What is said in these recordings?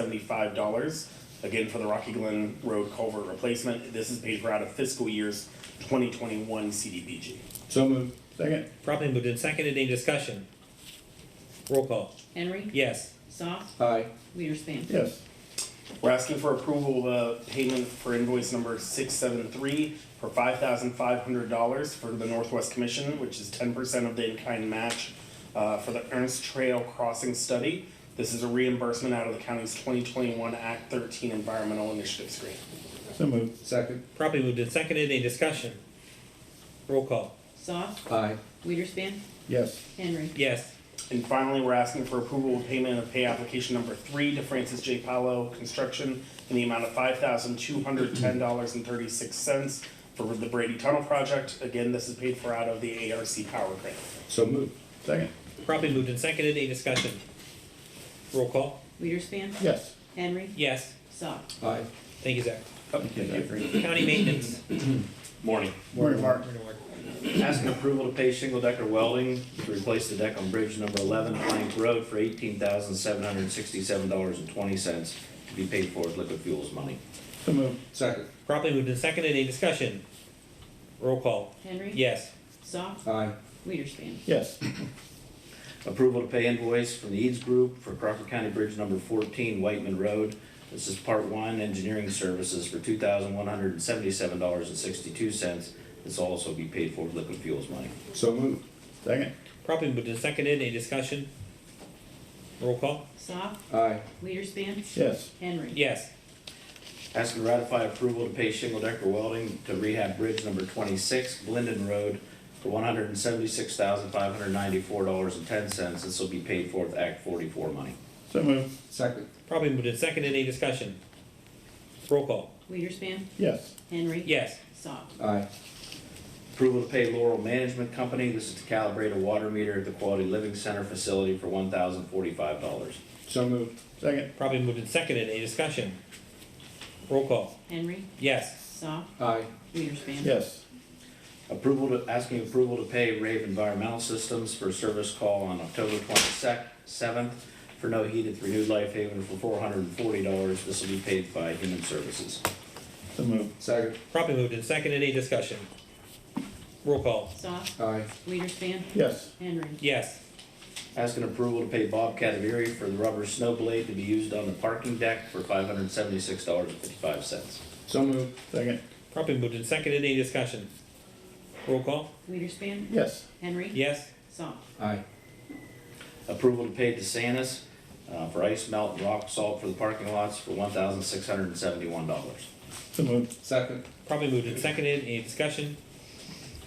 seventy-five dollars, again, for the Rocky Glen Road culvert replacement. This is paid for out of fiscal years twenty twenty-one CDBG. So moved. Second. Properly moved and seconded, any discussion? Roll call, Henry. yes. Soft. Aye. Wiederspin. Yes. We're asking for approval of the payment for invoice number six seven three for five thousand five hundred dollars for the Northwest Commission, which is ten percent of the in-kind match uh, for the Ernst Trail Crossing Study. This is a reimbursement out of the county's twenty twenty-one Act thirteen Environmental Initiatives grant. So moved. Second. Properly moved and seconded, any discussion? Roll call, Soft. Aye. Wiederspin. Yes. Henry. yes. And finally, we're asking for approval of payment of pay application number three to Francis J. Paolo Construction in the amount of five thousand two hundred ten dollars and thirty-six cents for the Brady Tunnel Project. Again, this is paid for out of the ARC Power Grant. So moved. Second. Properly moved and seconded, any discussion? Roll call, Wiederspin. Yes. Henry. yes. Soft. Aye. Thank you, Zach. Oh, Thank you, Zachary. County maintenance. Morning. Morning, Mark. Asking approval to pay shingle decker welding to replace the deck on bridge number eleven Plank Road for eighteen thousand seven hundred and sixty-seven dollars and twenty cents to be paid for with liquid fuels money. So moved. Second. Properly moved and seconded, any discussion? Roll call, Henry. yes. Soft. Aye. Wiederspin. Yes. Approval to pay invoice from the Eads Group for Crawford County Bridge number fourteen Whiteman Road. This is part one, engineering services for two thousand one hundred and seventy-seven dollars and sixty-two cents. This will also be paid for with liquid fuels money. So moved. Second. Properly moved and seconded, any discussion? Roll call, Soft. Aye. Wiederspin. Yes. Henry. yes. Asking to ratify approval to pay shingle decker welding to rehab bridge number twenty-six, Glendon Road, for one hundred and seventy-six thousand five hundred ninety-four dollars and ten cents. This will be paid for with Act forty-four money. So moved. Second. Properly moved and seconded, any discussion? Roll call, Wiederspin. Yes. Henry. yes. Soft. Aye. Approval to pay Laurel Management Company, this is to calibrate a water meter at the Quality Living Center facility for one thousand forty-five dollars. So moved. Second. Properly moved and seconded, any discussion? Roll call, Henry. yes. Soft. Aye. Wiederspin. Yes. Approval to, asking approval to pay Rave Environmental Systems for service call on October twenty-seventh for no heat at the Renewed Life Haven for four hundred and forty dollars. This will be paid by Human Services. So moved. Second. Properly moved and seconded, any discussion? Roll call, Soft. Aye. Wiederspin. Yes. Henry. yes. Asking approval to pay Bob Cadaveri for the rubber snow blade to be used on the parking deck for five hundred and seventy-six dollars and fifty-five cents. So moved. Second. Properly moved and seconded, any discussion? Roll call, Wiederspin. Yes. Henry. yes. Soft. Aye. Approval to pay DeSantis uh, for ice melt and rock salt for the parking lots for one thousand six hundred and seventy-one dollars. So moved. Second. Properly moved and seconded, any discussion?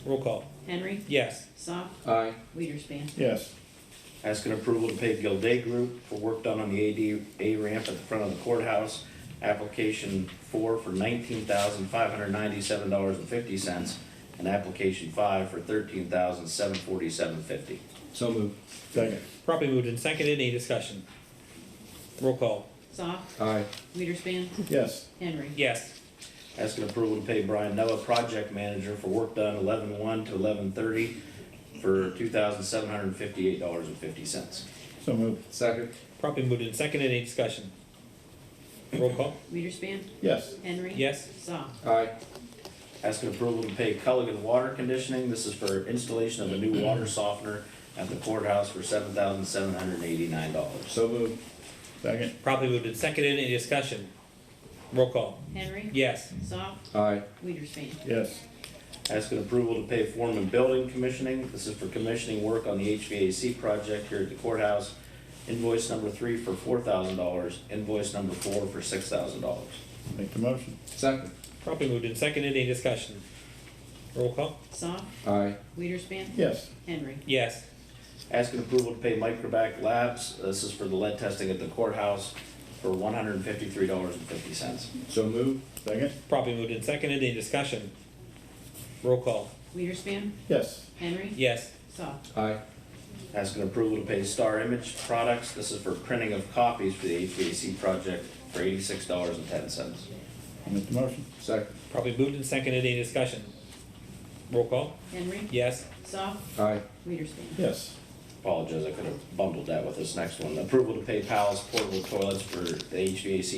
Roll call, Henry. yes. Soft. Aye. Wiederspin. Yes. Asking approval to pay Gilday Group for work done on the ADA ramp at the front of the courthouse. Application four for nineteen thousand five hundred ninety-seven dollars and fifty cents, and application five for thirteen thousand seven forty-seven fifty. So moved. Second. Properly moved and seconded, any discussion? Roll call, Soft. Aye. Wiederspin. Yes. Henry. yes. Asking approval to pay Brian Noah, project manager, for work done eleven-one to eleven-thirty for two thousand seven hundred fifty-eight dollars and fifty cents. So moved. Second. Properly moved and seconded, any discussion? Roll call, Wiederspin. Yes. Henry. yes. Soft. Aye. Asking approval to pay Culligan Water Conditioning, this is for installation of a new water softener at the courthouse for seven thousand seven hundred eighty-nine dollars. So moved. Second. Properly moved and seconded, any discussion? Roll call, Henry. yes. Soft. Aye. Wiederspin. Yes. Asking approval to pay Foreman Building Commissioning, this is for commissioning work on the HVAC project here at the courthouse. Invoice number three for four thousand dollars, invoice number four for six thousand dollars. Make the motion. Second. Properly moved and seconded, any discussion? Roll call, Soft. Aye. Wiederspin. Yes. Henry. yes. Asking approval to pay Microbac Labs, uh, this is for the lead testing at the courthouse for one hundred and fifty-three dollars and fifty cents. So moved. Second. Properly moved and seconded, any discussion? Roll call, Wiederspin. Yes. Henry. yes. Soft. Aye. Asking approval to pay Star Image Products, this is for printing of copies for the HVAC project for eighty-six dollars and ten cents. Make the motion. Second. Properly moved and seconded, any discussion? Roll call, Henry. yes. Soft. Aye. Wiederspin. Yes. apologize, I could have bundled that with this next one. Approval to pay Palace portable toilets for the HVAC